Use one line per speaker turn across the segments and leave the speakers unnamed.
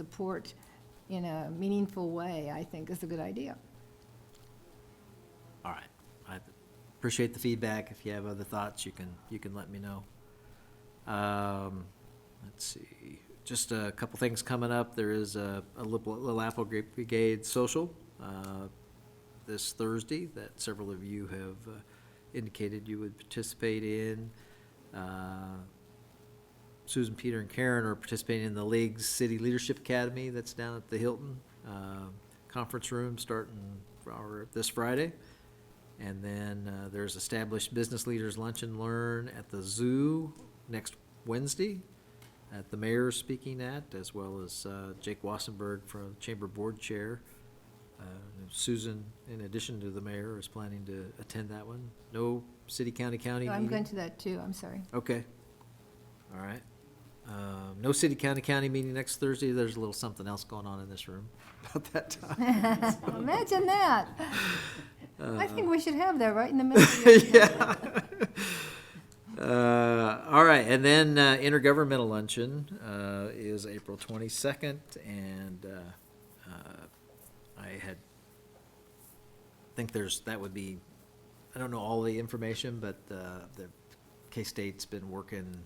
support in a meaningful way, I think is a good idea.
All right. I appreciate the feedback. If you have other thoughts, you can, you can let me know. Um, let's see, just a couple things coming up. There is a, a Little Little Apple Grape Brigade social, uh, this Thursday that several of you have uh, indicated you would participate in. Uh, Susan, Peter, and Karen are participating in the League's City Leadership Academy that's down at the Hilton uh, Conference Room starting our- this Friday. And then uh, there's Established Business Leaders Lunch and Learn at the Zoo next Wednesday that the mayor is speaking at, as well as uh, Jake Wassenberg from Chamber Board Chair. Uh, and Susan, in addition to the mayor, is planning to attend that one. No city, county, county
I'm going
meeting?
to that too, I'm sorry.
Okay. All right. Um, No city, county, county meeting next Thursday. There's a little something else going on in this room about that time.
Imagine that.
Uh-huh.
I think we should have that right in the middle. of the-
Uh, all right, and then uh, intergovernmental luncheon uh, is April twenty second, and uh, uh, I had think there's that would be I don't know all the information, but uh, the K State's been working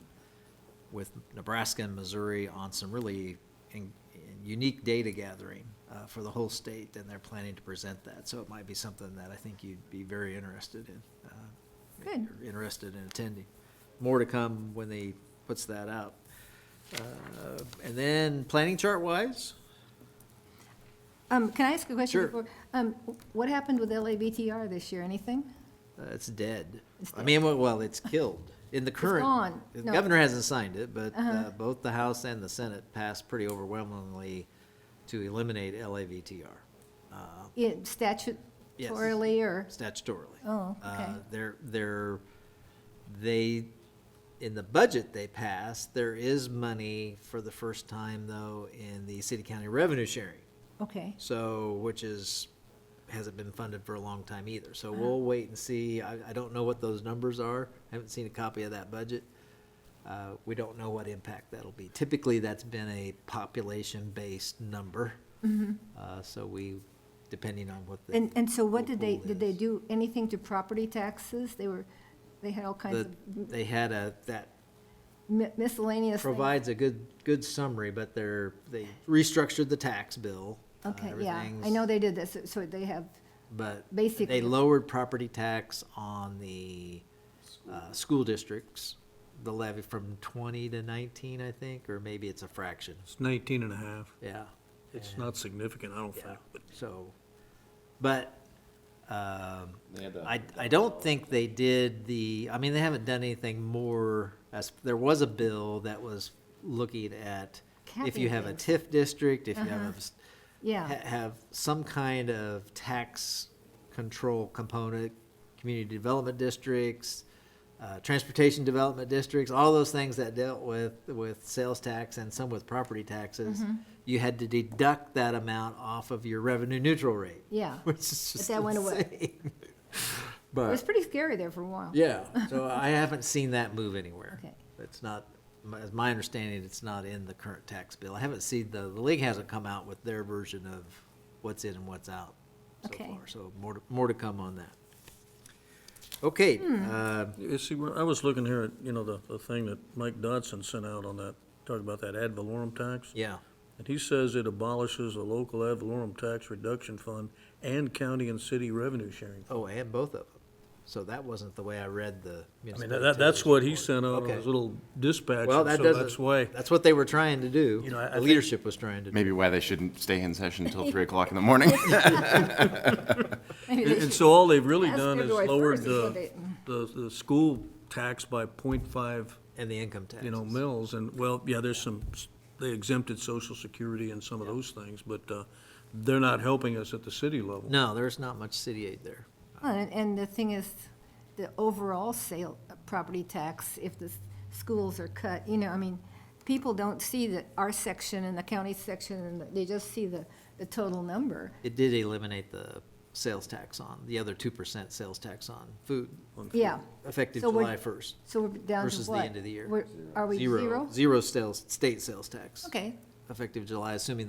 with Nebraska and Missouri on some really in, in unique data gathering uh, for the whole state, and they're planning to present that. So it might be something that I think you'd be very interested in. Uh, if
Good.
you're interested in attending. More to come when they puts that out. Uh, And then, planning chart-wise,
Um, can I ask a question
Sure.
before? Um, what happened with LABTR this year, anything?
uh, it's dead.
It's
I mean, well- well, it's killed. In the current.
gone.
The
No.
governor hasn't signed it, but
Uh-huh.
uh, both the House and the Senate passed pretty overwhelmingly to eliminate LAVTR uh,
It statutorily or,
statutorily.
oh, okay.
Uh, They're, they're, they, in the budget they passed, there is money for the first time, though, in the city-county revenue sharing.
Okay,
So, which is, hasn't been funded for a long time either. So
Mm-hmm.
we'll wait and see. I, I don't know what those numbers are. I haven't seen a copy of that budget. Uh, we don't know what impact that'll be. Typically, that's been a population-based number. Uh, so we, depending on what the.
Mm-hmm. and, and so what did they,
pool
did they
is.
do anything to property taxes? They were, they had all kinds
The-
of
They had a, that
mi- miscellaneous things.
provides a good, good summary, but they're, they restructured the tax bill. uh,
Okay, yeah, I
everything's-
know they did this, so they have,
But
Basically.
they lowered property tax on the uh, school districts, the levy from 20 to 19, I think, or maybe it's a fraction.
It's 19 and a half.
Yeah.
It's
And-
not significant, I don't
Yeah,
think.
so, but um,
They had to-
I, I don't think they did the, I mean, they haven't done anything more, as, there was a bill that was looking at if you
Capping
have a
things.
TIF district, if you have
Uh-huh.
a s- ha-
yeah,
have some kind of tax control component, community development districts, uh, transportation development districts, all those things that dealt with, with sales tax and some with property taxes.
Mm-hmm.
You had to deduct that amount off of your revenue neutral rate,
yeah.
which is just
that went away.
insane.
It was
But,
pretty scary there for a while.
yeah, so I haven't seen that move anywhere.
Okay.
It's not, my- as my understanding, it's not in the current tax bill. I haven't seen, the, the league hasn't come out with their version of what's in and what's out so
Okay.
far. So more, to- more to come on that. Okay,
Hmm.
uh,
You see, where- I was looking here at, you know, the, the thing that Mike Dodson sent out on that, talking about that ad valorem tax.
yeah,
And he says it abolishes the local ad valorem tax reduction fund and county and city revenue sharing.
oh, and both of them. So that wasn't the way I read the.
I mean, that, that's what he sent out on
Okay.
his little dispatch,
Well,
and
that
so that's
doesn't,
why.
that's what they were trying to do.
You know, I- I
The
think-
leadership was trying to do.
Maybe why they shouldn't stay in session until three o'clock in the morning.
Maybe
And
they
and
should-
so all they've really
Last
done is
February
lowered
1st is what
the,
they-
the, the school tax by 0.5.
And the income taxes.
you know, mills, and, well, yeah, there's some, they exempted social security and some of those things, but uh, they're not helping us at the city level.
No, there's not much city aid there.
Well, And, and the thing is, the overall sale, uh, property tax, if the s- schools are cut, you know, I mean, people don't see that our section and the county section, and they just see the, the total number.
It did eliminate the sales tax on, the other two percent sales tax on food.
Yeah,
Effective
So we're-
July first.
so we're down to what?
Versus the end of the year.
We're- Are we zero?
Zero sales, state sales tax.
Okay,
effective July, assuming the